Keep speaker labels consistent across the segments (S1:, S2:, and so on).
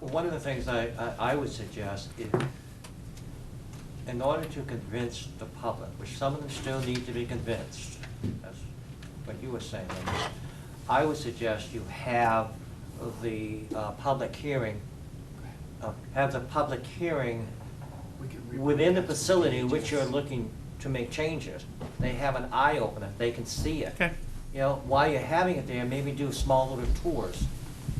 S1: one of the things I, I I would suggest is, in order to convince the public, which some of them still need to be convinced, that's what you were saying, Linda, I would suggest you have the uh, public hearing, uh, have the public hearing
S2: We could re-
S1: within the facility in which you're looking to make changes. They have an eye opener, they can see it.
S3: Okay.
S1: You know, while you're having it there, maybe do small little tours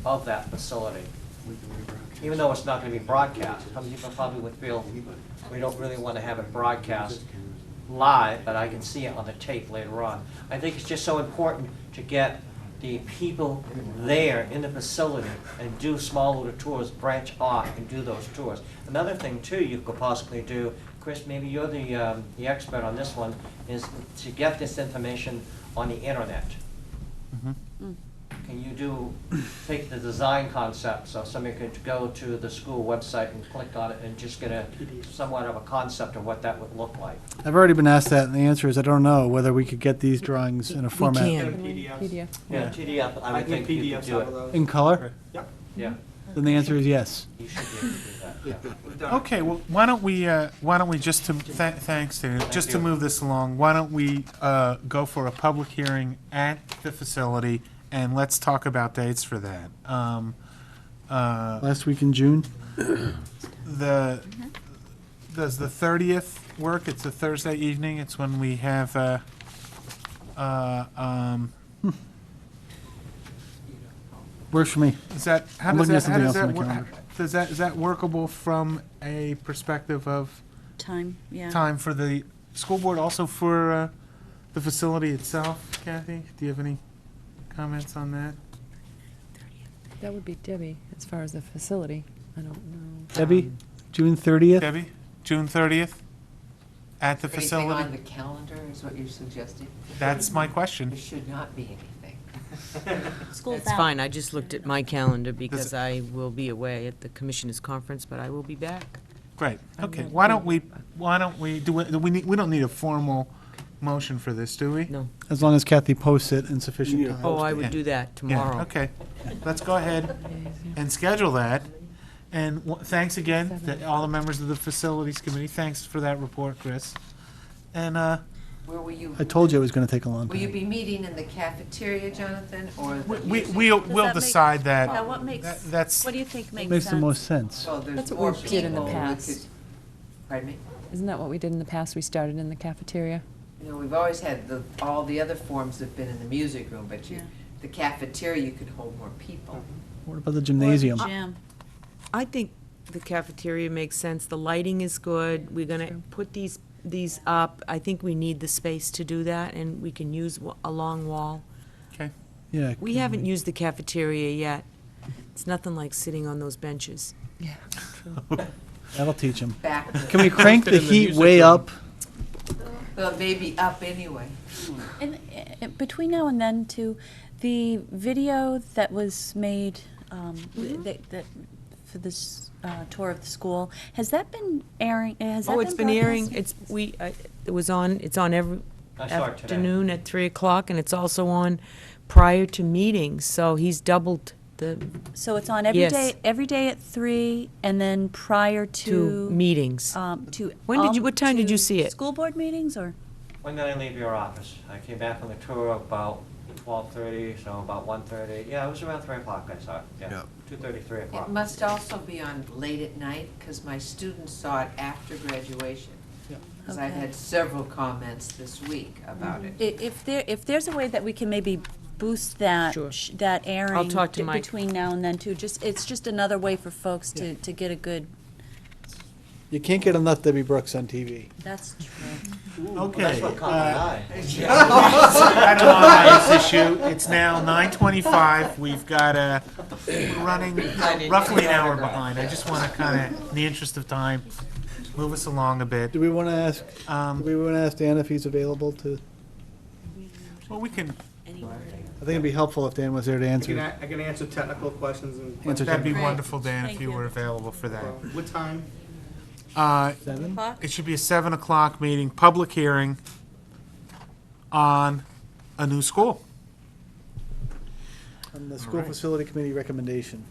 S1: of that facility.
S2: We can rebroadcast.
S1: Even though it's not gonna be broadcast, some people probably would feel,
S2: Anybody.
S1: we don't really wanna have it broadcast live, but I can see it on the tape later on. I think it's just so important to get the people there in the facility and do small little tours, branch off and do those tours. Another thing too you could possibly do, Chris, maybe you're the, um, the expert on this one, is to get this information on the internet. Can you do, take the design concept, so somebody could go to the school website and click on it and just get a somewhat of a concept of what that would look like?
S4: I've already been asked that, and the answer is I don't know whether we could get these drawings in a format
S5: can.
S6: PDF.
S1: Yeah, TDF, I
S7: I
S1: would
S7: can
S1: think you
S7: PDF
S1: could do
S7: some of
S1: it.
S7: those.
S4: in color.
S7: Yep,
S1: Yeah,
S4: Then the answer is yes.
S1: you should be able to do that,
S7: we've done it.
S3: Okay, well, why don't we, uh, why don't we, just to, tha- thanks, Dana, just to
S1: you.
S3: move this along, why don't we uh, go for a public hearing at the facility, and let's talk about dates for that. Um, uh,
S4: Last week in June.
S3: The, does the thirtieth work? It's a Thursday evening, it's when we have, uh, uh, um,
S4: Works for me.
S3: is that, how
S4: I'm
S3: does
S4: looking
S3: that,
S4: at
S3: how does that,
S4: something else on my
S3: wor- does that, is that workable from a perspective of
S5: Time, yeah.
S3: time for the school board, also for uh, the facility itself. Kathy, do you have any comments on that?
S6: That would be Debbie, as far as the facility. I don't know.
S4: Debbie, June 30th.
S3: Debbie, June thirtieth, at the
S8: Anything on the
S3: facility?
S8: calendar is what you're suggesting?
S3: That's my
S8: There
S3: question.
S8: should not be anything.
S5: School's out.
S8: That's fine.
S9: It's fine, I just looked at my calendar because
S3: Does-
S9: I will be away at the commissioners' conference, but I will be back.
S3: Great, okay, why don't we, why don't we, do we, do we need, we don't need a formal motion for this, do we?
S9: No.
S4: As long as Kathy posts it in sufficient time.
S9: Oh, I
S3: Yeah.
S9: would do that
S3: Yeah,
S9: tomorrow.
S3: Okay, let's go ahead and schedule that. And w- thanks again to all the members of the facilities committee, thanks for that report, Chris. And, uh,
S8: Where will you,
S4: I told you it was going to take a long
S8: will you
S4: time.
S8: be meeting in the cafeteria, Jonathan, or? the
S3: we, we,
S8: music-
S3: we'll-
S5: Does
S3: we'll
S5: that make-
S3: decide that.
S5: Now, what makes,
S3: That- that's-
S5: what do you think makes sense?
S4: Makes the most sense.
S8: Well, there's
S6: That's what
S8: more
S6: we did in the
S8: people. We
S6: past.
S8: could- Pardon me?
S6: Isn't that what we did in the past? We started in the cafeteria?
S8: You know, we've always had the, all the other forms have been in the music room, but you,
S5: Yeah.
S8: the cafeteria, you could hold more people.
S4: What about the gymnasium?
S5: Jim,
S9: I think the cafeteria makes sense, the lighting is good, we're gonna put these, these up. I think we need the space to do that, and we can use wa- a long wall.
S3: Okay.
S4: Yeah.
S9: We
S3: Mm-hmm.
S9: haven't used the cafeteria yet. It's nothing like sitting on those benches.
S4: That'll teach
S3: Mm-hmm.
S4: them.
S8: Back, to-
S4: Can we crank the heat way up?
S8: well, maybe up anyway.
S5: and, uh, between now and then too, the video that was made, um,
S6: Mm-hmm.
S5: that, that, for this, uh, tour of the school, has that been airing, has that been
S9: Oh, it's been airing,
S5: broadcast?
S9: it's, we, I- it was on, it's on every
S1: I saw it today.
S9: afternoon at 3 o'clock, and it's also on prior to meetings, so he's doubled the,
S5: So it's on every
S9: Yes.
S5: day, every day at three, and then prior
S9: to
S5: to,
S9: meetings.
S5: um, to.
S9: When did you-
S5: all-
S9: what time did you
S5: to
S9: see it?
S5: School board meetings, or?
S1: When did I leave your office? I came back on the tour about twelve thirty, so about one thirty, yeah, it was around three o'clock I saw it, yeah,
S2: Yeah.
S1: two thirty, three
S8: It
S1: o'clock.
S8: must also be on late at night, because my students saw it after graduation. Because I've
S5: Okay.
S8: had several comments this week
S3: Mm-hmm.
S8: about it.
S5: I- If there, if there's a way that we can maybe boost that,
S9: Sure.
S5: sh- that airing.
S9: talk to
S5: d-
S9: Mike.
S5: Between now and then too, just, it's just another way for folks to, to get a good,
S4: You can't get enough Debbie Brooks on TV.
S5: that's true.
S3: Okay.
S1: That's what caught my eye.
S3: uh, item on this issue. It's now nine twenty-five. We've got a, we're running roughly an hour behind. I just want to kind of, in the interest of time, move us along a bit.
S4: Do we want to ask? Do
S3: Um,
S4: we want to ask Dan if he's available to?
S3: well, we can,
S4: I think it'd be helpful if Dan was there to
S7: I can,
S4: answer.
S7: a- I can answer technical questions and.
S4: Answer
S3: that'd be
S5: Great.
S3: wonderful, Dan, if
S5: Thank
S3: you
S5: you.
S3: were available for that.
S7: What time?
S3: Uh,
S4: Seven.
S3: it should be a seven o'clock meeting, public hearing on a new school.
S4: On the school facility committee recommendation.